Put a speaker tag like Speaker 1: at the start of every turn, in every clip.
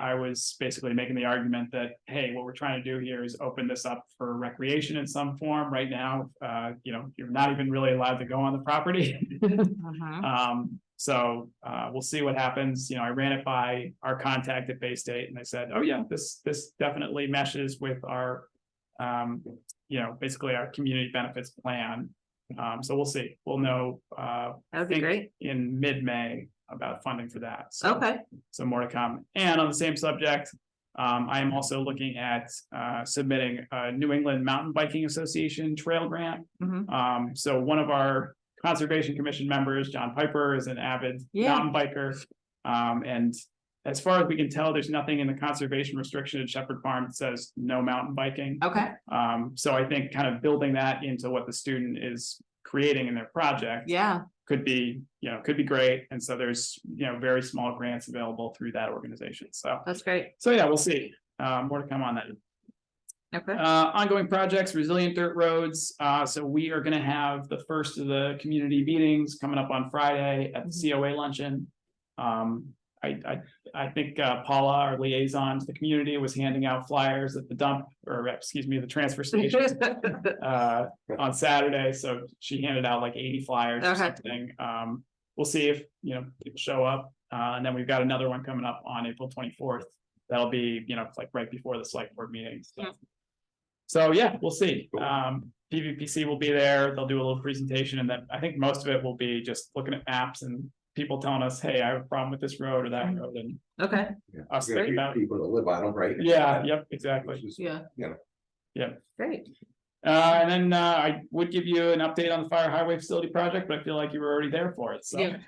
Speaker 1: I was basically making the argument that, hey, what we're trying to do here is open this up for recreation in some form right now. Uh, you know, you're not even really allowed to go on the property.
Speaker 2: Mhm.
Speaker 1: Um, so, uh, we'll see what happens. You know, I ran it by our contact at Bay State and they said, oh yeah, this, this definitely meshes with our, um, you know, basically our community benefits plan. Um, so we'll see. We'll know, uh,
Speaker 2: That would be
Speaker 1: think-
Speaker 2: great.
Speaker 1: in mid-May about funding for that. So-
Speaker 2: Okay,
Speaker 1: so more to come. And on the same subject, um, I am also looking at, uh, submitting a New England Mountain Biking Association Trail Grant.
Speaker 2: Mhm.
Speaker 1: Um, so one of our Conservation Commission members, John Piper, is an avid
Speaker 2: Yeah.
Speaker 1: mountain biker. Um, and as far as we can tell, there's nothing in the conservation restriction at Shepherd Farm that says no mountain biking.
Speaker 2: okay,
Speaker 1: Um, so I think kind of building that into what the student is creating in their project
Speaker 2: yeah,
Speaker 1: could be, you know, could be great. And so there's, you know, very small grants available through that organization. So,
Speaker 2: that's great.
Speaker 1: so yeah, we'll see. Uh, more to come on that.
Speaker 2: Okay,
Speaker 1: Uh, ongoing projects, resilient dirt roads. Uh, so we are gonna have the first of the community meetings coming up on Friday at the COA luncheon. Um, I, I, I think uh, Paula, our liaison to the community, was handing out flyers at the dump, or excuse me, the transfer station uh, on Saturday, so she handed out like eighty flyers or
Speaker 2: Okay.
Speaker 1: something. Um, we'll see if, you know, people show up. Uh, and then we've got another one coming up on April twenty-fourth. That'll be, you know, like right before the select board meeting, so.
Speaker 2: Yeah.
Speaker 1: So, yeah, we'll see. Um, PVPC will be there. They'll do a little presentation and then I think most of it will be just looking at maps and people telling us, hey, I have a problem with this road or that road and
Speaker 2: okay,
Speaker 3: Yeah.
Speaker 1: us
Speaker 3: You're
Speaker 1: thinking
Speaker 3: gonna
Speaker 1: about,
Speaker 3: get People to live on them, right?
Speaker 1: yeah, yep, exactly.
Speaker 3: Which is-
Speaker 2: yeah.
Speaker 3: Yeah.
Speaker 1: Yeah.
Speaker 2: Great,
Speaker 1: Uh, and then, uh, I would give you an update on the fire highway facility project, but I feel like you were already there for it, so.
Speaker 2: yeah,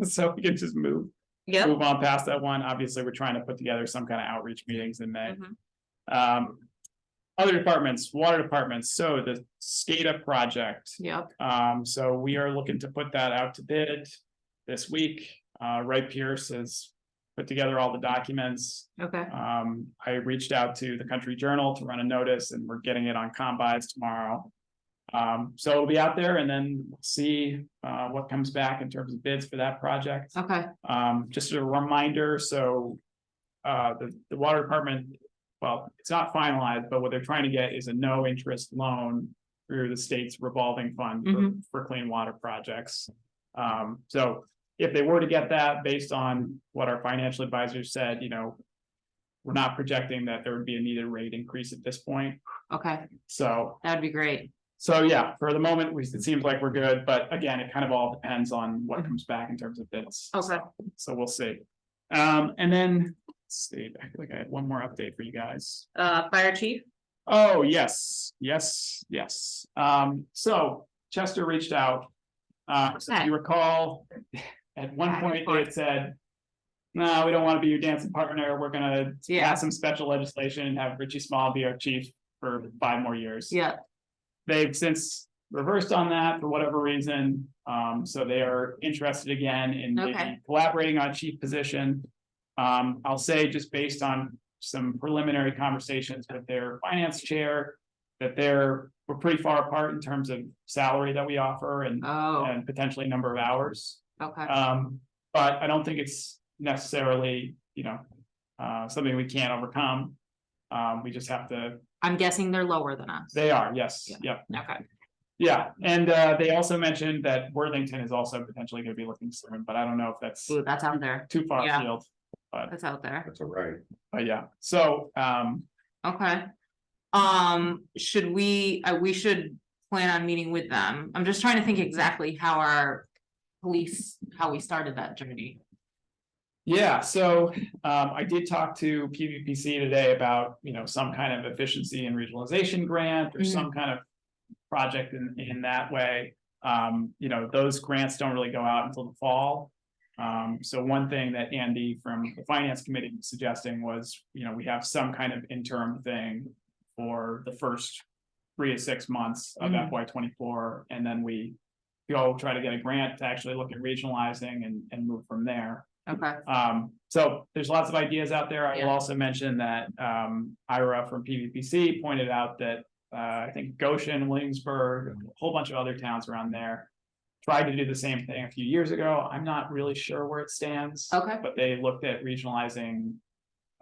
Speaker 1: So we can just move,
Speaker 2: yeah.
Speaker 1: move on past that one. Obviously, we're trying to put together some kind of outreach meetings in May.
Speaker 2: Mhm.
Speaker 1: Um, other departments, water departments, so the SCADA project,
Speaker 2: Yep,
Speaker 1: um, so we are looking to put that out to bid this week. Uh, Wright Pierce has put together all the documents.
Speaker 2: okay,
Speaker 1: Um, I reached out to the Country Journal to run a notice and we're getting it on combines tomorrow. Um, so it'll be out there and then we'll see, uh, what comes back in terms of bids for that project.
Speaker 2: okay,
Speaker 1: Um, just a reminder, so. Uh, the, the water department, well, it's not finalized, but what they're trying to get is a no interest loan. Through the state's revolving fund for,
Speaker 2: Mhm.
Speaker 1: for clean water projects. Um, so if they were to get that based on what our financial advisor said, you know. We're not projecting that there would be a needed rate increase at this point,
Speaker 2: okay.
Speaker 1: so
Speaker 2: That'd be great.
Speaker 1: so yeah, for the moment, we, it seems like we're good, but again, it kind of all depends on what comes back in terms of bids.
Speaker 2: Okay.
Speaker 1: So we'll see. Um, and then, let's see, I feel like I had one more update for you guys.
Speaker 2: Uh, fire chief,
Speaker 1: Oh, yes, yes, yes. Um, so Chester reached out. Uh, so if you recall, at one point they had said. No, we don't want to be your dancing partner. We're gonna
Speaker 2: Yeah.
Speaker 1: pass some special legislation and have Richie Small be our chief for five more years.
Speaker 2: yeah,
Speaker 1: They've since reversed on that for whatever reason. Um, so they are interested again in maybe
Speaker 2: Okay.
Speaker 1: collaborating on a chief position. Um, I'll say just based on some preliminary conversations with their finance chair. That they're, we're pretty far apart in terms of salary that we offer and,
Speaker 2: oh,
Speaker 1: and potentially number of hours.
Speaker 2: okay,
Speaker 1: Um, but I don't think it's necessarily, you know, uh, something we can't overcome. Um, we just have to,
Speaker 2: I'm guessing they're lower than us.
Speaker 1: they are, yes,
Speaker 2: Yeah.
Speaker 1: yep.
Speaker 2: Okay,
Speaker 1: Yeah, and uh, they also mentioned that Worthington is also potentially gonna be looking soon, but I don't know if that's
Speaker 2: Ooh, that's out there,
Speaker 1: too far
Speaker 2: yeah.
Speaker 1: afield.
Speaker 2: that's out there,
Speaker 3: That's all right.
Speaker 1: But yeah, so um,
Speaker 2: okay. Um, should we, uh, we should plan on meeting with them. I'm just trying to think exactly how our police, how we started that journey.
Speaker 1: yeah, so um, I did talk to PVPC today about, you know, some kind of efficiency and regionalization grant or
Speaker 2: Mhm.
Speaker 1: some kind of project in in that way. Um, you know, those grants don't really go out until the fall. Um, so one thing that Andy from the Finance Committee was suggesting was, you know, we have some kind of interim thing for the first three to six months of
Speaker 2: Mhm.
Speaker 1: FY twenty-four, and then we go try to get a grant to actually look at regionalizing and, and move from there.
Speaker 2: Okay,
Speaker 1: Um, so there's lots of ideas out there. I
Speaker 2: Yeah.
Speaker 1: will also mention that, um, Ira from PVPC pointed out that, uh, I think Goshen, Williamsburg, a whole bunch of other towns around there. Tried to do the same thing a few years ago. I'm not really sure where it stands.
Speaker 2: Okay.
Speaker 1: But they looked at regionalizing